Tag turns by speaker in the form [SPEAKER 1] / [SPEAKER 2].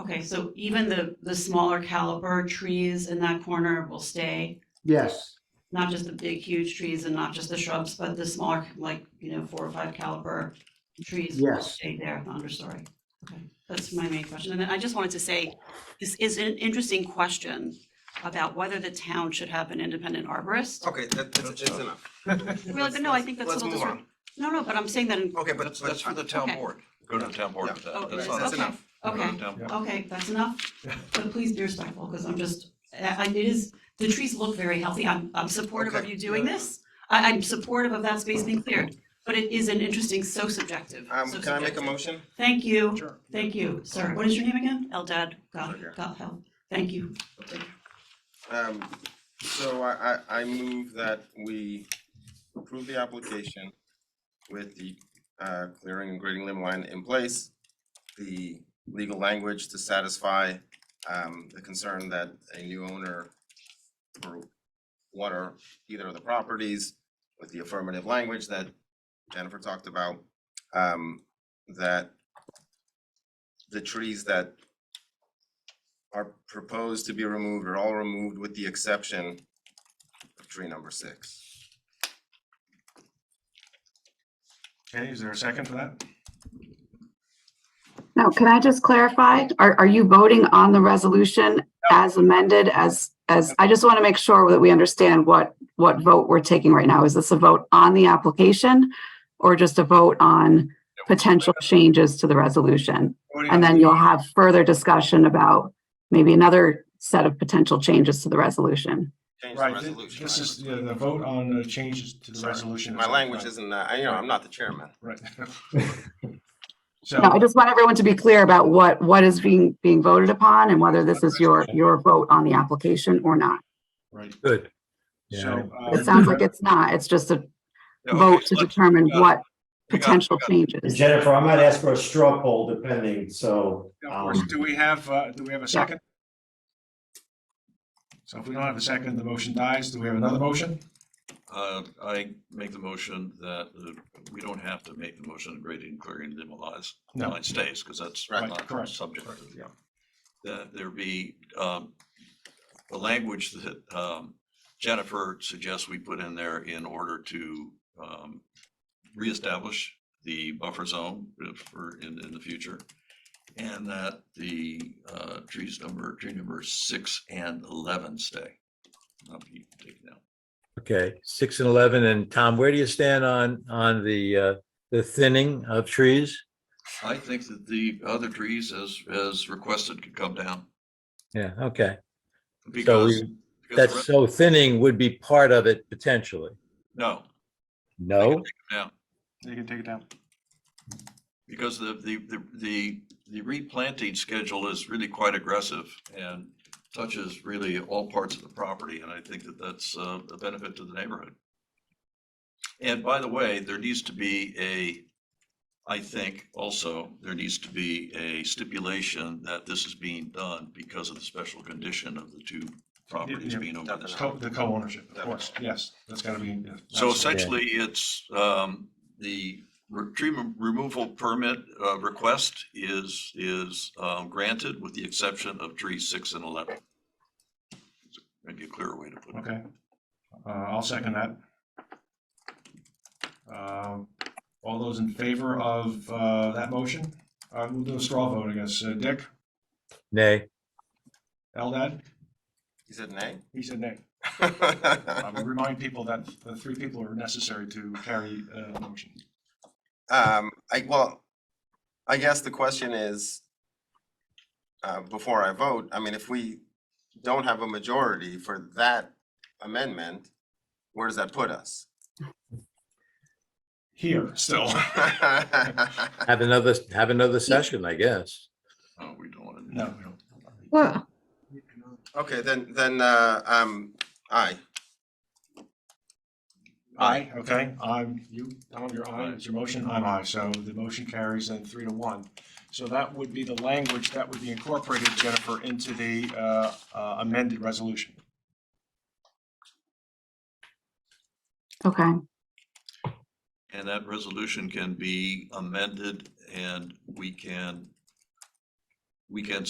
[SPEAKER 1] Okay, so even the, the smaller caliber trees in that corner will stay,
[SPEAKER 2] Yes,
[SPEAKER 1] not just the big huge trees and not just the shrubs, but the smaller, like, you know, four or five caliber trees will
[SPEAKER 2] Yes.
[SPEAKER 1] stay there, the understory. Okay, that's my main question. And then I just wanted to say, this is an interesting question about whether the town should have an independent arborist.
[SPEAKER 3] Okay, that, that's, that's enough.
[SPEAKER 1] Really, but no, I think that's a
[SPEAKER 3] Let's
[SPEAKER 1] little
[SPEAKER 3] move
[SPEAKER 1] disrespectful. No,
[SPEAKER 3] on.
[SPEAKER 1] no, but I'm saying that in,
[SPEAKER 3] Okay, but. Um,
[SPEAKER 4] That's, that's for the town
[SPEAKER 1] Okay.
[SPEAKER 4] board. Oh, Go to the town board
[SPEAKER 3] Yeah.
[SPEAKER 4] with that.
[SPEAKER 1] Okay,
[SPEAKER 4] That's
[SPEAKER 3] That's
[SPEAKER 4] not us.
[SPEAKER 3] enough.
[SPEAKER 4] Go to
[SPEAKER 1] okay.
[SPEAKER 4] the town board.
[SPEAKER 1] Okay, that's enough, but please be respectful, because I'm just, I, I- it is, the trees look very healthy, I'm, I'm supportive of
[SPEAKER 3] Okay,
[SPEAKER 1] you doing
[SPEAKER 3] yeah.
[SPEAKER 1] this. I, I'm supportive of that space being cleared, but it is an interesting, so subjective,
[SPEAKER 3] Um,
[SPEAKER 1] so
[SPEAKER 3] can I make a
[SPEAKER 1] subjective.
[SPEAKER 3] motion?
[SPEAKER 1] Thank you,
[SPEAKER 3] Sure.
[SPEAKER 1] thank you, sir, what is your name again? Eldad, God,
[SPEAKER 3] Okay.
[SPEAKER 1] God help, thank you.
[SPEAKER 3] Um, so I, I, I move that we approve the application with the, uh, clearing and grading limit line in place. The legal language to satisfy, um, the concern that a new owner for one or either of the properties with the affirmative language that Jennifer talked about, um, that the trees that are proposed to be removed are all removed with the exception of tree number six.
[SPEAKER 5] Okay, is there a second to that?
[SPEAKER 6] Now, can I just clarify? Are, are you voting on the resolution as amended as, as, I just want to make sure that we understand what, what vote we're taking right now. Is this a vote on the application? Or just a vote on potential changes to the resolution?
[SPEAKER 5] Voting on
[SPEAKER 6] And then
[SPEAKER 5] the-
[SPEAKER 6] you'll have further discussion about maybe another set of potential changes to the resolution.
[SPEAKER 3] Change the
[SPEAKER 5] Right, thi-
[SPEAKER 3] resolution.
[SPEAKER 5] this
[SPEAKER 3] I
[SPEAKER 5] is
[SPEAKER 3] would-
[SPEAKER 5] the, the vote on the changes to the
[SPEAKER 3] Sorry,
[SPEAKER 5] resolution.
[SPEAKER 3] My language
[SPEAKER 5] Right,
[SPEAKER 3] isn't, uh, I- you know, I'm not the chairman.
[SPEAKER 5] Right.
[SPEAKER 6] No, I
[SPEAKER 5] So,
[SPEAKER 6] just want everyone to be clear about what, what is being, being voted upon and whether this is your, your vote on the application or not.
[SPEAKER 5] right,
[SPEAKER 7] Good.
[SPEAKER 5] so. uh,
[SPEAKER 6] It sounds like it's not. It's just a
[SPEAKER 4] Yeah, okay,
[SPEAKER 6] vote to
[SPEAKER 4] let's-
[SPEAKER 6] determine
[SPEAKER 4] uh,
[SPEAKER 6] what
[SPEAKER 4] hang on,
[SPEAKER 6] potential
[SPEAKER 4] hang
[SPEAKER 6] changes.
[SPEAKER 8] Jennifer, I might ask for a straw poll depending, so.
[SPEAKER 5] Of
[SPEAKER 8] um,
[SPEAKER 5] course, do we have, uh, do we have a second? So if we don't have a second, the motion dies. Do we have another motion?
[SPEAKER 4] Uh, I make the motion that uh, we don't have to make the motion of grading and clearing the lies.
[SPEAKER 5] No.
[SPEAKER 4] It stays because that's
[SPEAKER 3] Right,
[SPEAKER 4] not
[SPEAKER 5] correct,
[SPEAKER 4] subject. to-
[SPEAKER 5] correct, yeah.
[SPEAKER 4] That there be um, the language that um, Jennifer suggests we put in there in order to um, reestablish the buffer zone for in, in the future. And that the uh, trees number, tree number six and 11 stay. Not be taken out.
[SPEAKER 7] Okay, six and 11. And Tom, where do you stand on, on the, uh, the thinning of trees?
[SPEAKER 4] I think that the other trees as, as requested could come down.
[SPEAKER 7] Yeah, okay. So
[SPEAKER 4] Because.
[SPEAKER 7] we,
[SPEAKER 4] because the
[SPEAKER 7] that's,
[SPEAKER 4] rest-
[SPEAKER 7] so thinning would be part of it potentially.
[SPEAKER 4] No,
[SPEAKER 7] No?
[SPEAKER 5] You can take it down.
[SPEAKER 4] because the, the, the, the, the replanting schedule is really quite aggressive and touches really all parts of the property, and I think that that's uh, a benefit to the neighborhood. And by the way, there needs to be a, I think also, there needs to be a stipulation that this is being done because of the special condition of the two properties
[SPEAKER 5] yeah,
[SPEAKER 4] being over this.
[SPEAKER 5] Co- The co-ownership, of course, yes, that's gotta be. yeah,
[SPEAKER 4] So
[SPEAKER 5] absolutely.
[SPEAKER 4] essentially, it's, um, the re- tree rem- removal permit, uh, request is, is, um, granted with the exception of trees six and eleven. Maybe a clearer way to put it.
[SPEAKER 5] Okay, uh, I'll second that. Um, all those in favor of, uh, that motion, uh, we'll do a straw vote, I guess, uh, Dick,
[SPEAKER 7] Nay.
[SPEAKER 5] Eldad,
[SPEAKER 3] He said nay?
[SPEAKER 5] he said nay. I would
[SPEAKER 3] Um,
[SPEAKER 5] remind people that the three people are necessary to carry, uh, the motion.
[SPEAKER 3] Um, I, well, I guess the question is, uh, before I vote, I mean, if we don't have a majority for that amendment, where does that put us?
[SPEAKER 5] Here, still,
[SPEAKER 7] Have another, have another session, I guess.
[SPEAKER 4] Oh, we don't want to.
[SPEAKER 5] no, we don't.
[SPEAKER 6] Well,
[SPEAKER 3] Okay, then, then, uh, um, aye.
[SPEAKER 5] Aye, okay, I'm, you, Tom, you're aye, it's your motion, I'm aye, so the motion carries then three to one. So that would be the language that would be incorporated, Jennifer, into the uh, uh, amended resolution.
[SPEAKER 6] okay,
[SPEAKER 4] And that resolution can be amended and we can, we can